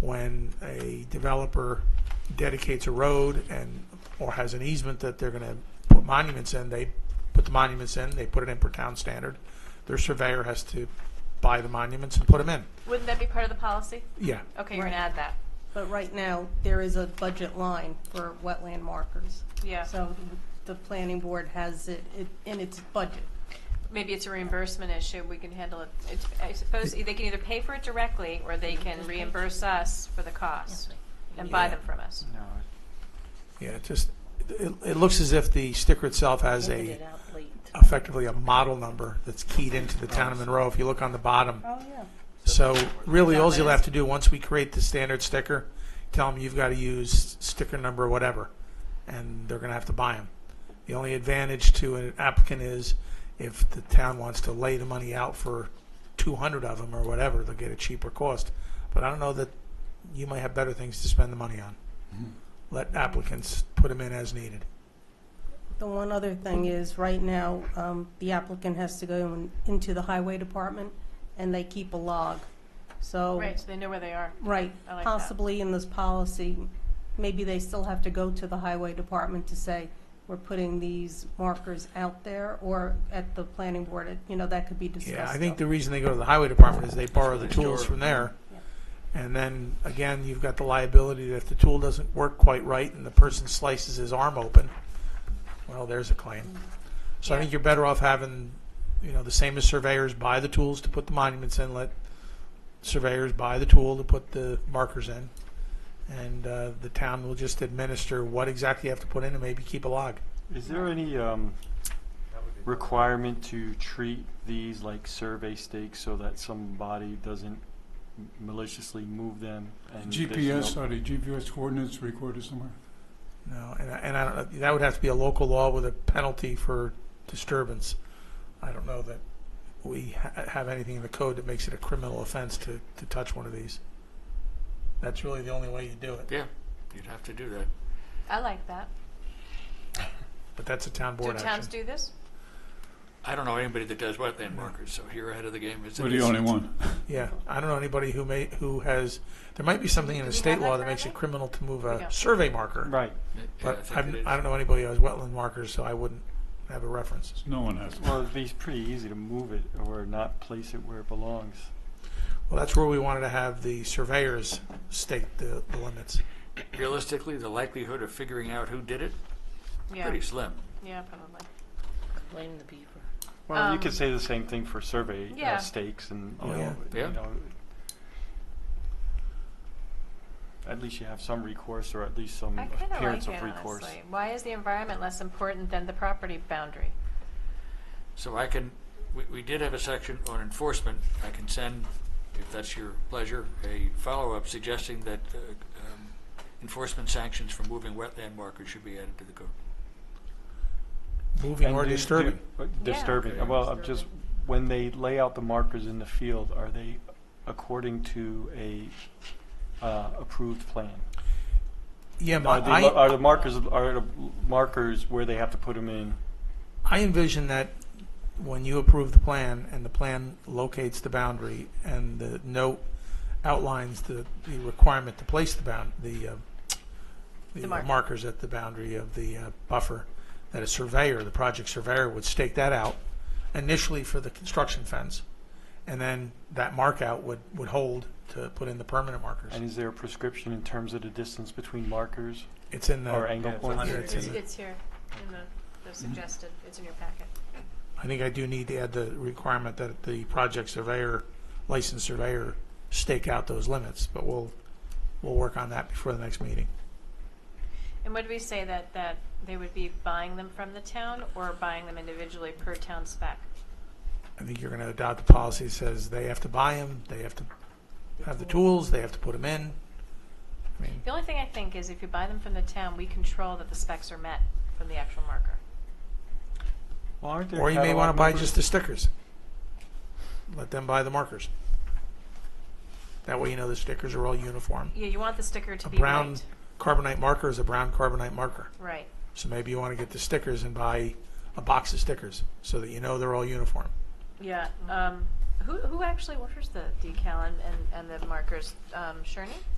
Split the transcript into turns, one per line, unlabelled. when a developer dedicates a road and, or has an easement that they're gonna put monuments in, they put the monuments in, they put it in per town standard. Their surveyor has to buy the monuments and put them in.
Wouldn't that be part of the policy?
Yeah,
Okay, you're gonna add that.
But right now, there is a budget line for wetland markers.
Yeah.
So the planning board has it it- in its budget.
Maybe it's a reimbursement issue, we can handle it. It's- I suppose they can either pay for it directly, or they can reimburse us for the cost and buy them from us.
No,
yeah, it just, it, it looks as if the sticker itself has
Taking
a,
it out late.
effectively a model number that's keyed into the town of Monroe, if you look on the bottom.
Oh, yeah.
So really, all
That
you'll
is-
have to do, once we create the standard sticker, tell them you've got to use sticker number whatever, and they're going to have to buy them. The only advantage to an applicant is if the town wants to lay the money out for 200 of them or whatever, they'll get a cheaper cost. But I don't know that you might have better things to spend the money on. Let applicants put them in as needed.
The one other thing is, right now, um, the applicant has to go in- into the highway department, and they keep a log. So,
Right, so they know where they are.
right,
I like that.
possibly in this policy, maybe they still have to go to the highway department to say, we're putting these markers out there, or at the planning board, it- you know, that could be discussed.
Yeah, I think
though.
the reason they go to the highway department is they borrow the
Next door.
tools from there. And then, again, you've got the liability that if the tool doesn't work quite right and the person slices his arm open, well, there's a claim. So I think you're better off having, you know, the same as surveyors buy the tools to put the monuments in, let surveyors buy the tool to put the markers in. And uh, the town will just administer what exactly you have to put in and maybe keep a log.
Is there any um, requirement to treat these like survey stakes so that somebody doesn't m- maliciously move them? and there's
GPS,
no-
are the GPS coordinates recorded somewhere?
No, and I, and I don't, that would have to be a local law with a penalty for disturbance. I don't know that we ha- have anything in the code that makes it a criminal offense to, to touch one of these. That's really the only way you do it,
Yeah, you'd have to do that.
I like that.
but that's a town
Do
board
towns
action.
do this?
I don't know anybody that does wetland markers, so you're ahead of the game. It's-
We're the
it's-
only one.
Yeah, I don't know anybody who may, who has, there might be something in
Do
the
we
state
have that
law that
currently?
makes it criminal to move
We
a
don't.
survey marker.
Right.
Yeah, I
But
think
I've,
it is.
I don't know anybody who has wetland markers, so I wouldn't have a reference.
No one has.
Well, it'd be pretty easy to move it or not place it where it belongs.
Well, that's where we wanted to have the surveyors state the the limits.
Realistically, the likelihood of figuring out who did it,
Yeah,
pretty slim.
yeah, probably.
Blame the beaver.
Well, you
Um,
could say the same thing for survey uh,
yeah.
stakes and
Oh,
you know,
yeah. Yeah.
You know, at least you have some recourse or at least some
I kinda
appearance
like it,
of recourse.
honestly. Why is the environment less important than the property boundary?
So I can, we, we did have a section on enforcement. I can send, if that's your pleasure, a follow-up suggesting that uh, um, enforcement sanctions for moving wetland markers should be added to the code.
Moving
And
or
do- do-
disturbing.
uh, Disturbing, Uh, well, I'm just, when they lay out the markers in the field, are they according to a uh, approved plan?
Yeah, my,
Are the, lo- uh,
I,
are the markers, are the markers where they have to put them in?
I envision that when you approve the plan and the plan locates the boundary and the note outlines the, the requirement to place the bound, the, uh, the uh,
The marker.
markers at the boundary of the uh, buffer, that a surveyor, the project surveyor would stake that out initially for the construction fence. And then that mark out would, would hold to put in the permanent markers.
And is there a prescription in terms of the distance between markers
It's in
or
the,
angle
Yeah, it's
points?
under-
it's in the-
It's here, in the, the suggested, it's in your packet.
I think I do need to add the requirement that the project surveyor, licensed surveyor, stake out those limits, but we'll, we'll work on that before the next meeting.
And would we say that, that they would be buying them from the town or buying them individually per town spec?
I think you're gonna adopt the policy that says they have to buy them, they have to have the tools, they have to put them in. I mean,
The only thing I think is if you buy them from the town, we control that the specs are met from the actual marker.
Well, aren't there
or you may
catalog
wanna buy
numbers?
just the stickers. Let them buy the markers. That way you know the stickers are all uniform.
Yeah, you want the sticker to
A
be right.
brown carbonite marker is a brown carbonite marker.
Right.
So maybe you want to get the stickers and buy a box of stickers so that you know they're all uniform.
Yeah. Um, who, who actually orders the decal and, and, and the markers? Um, Sherney?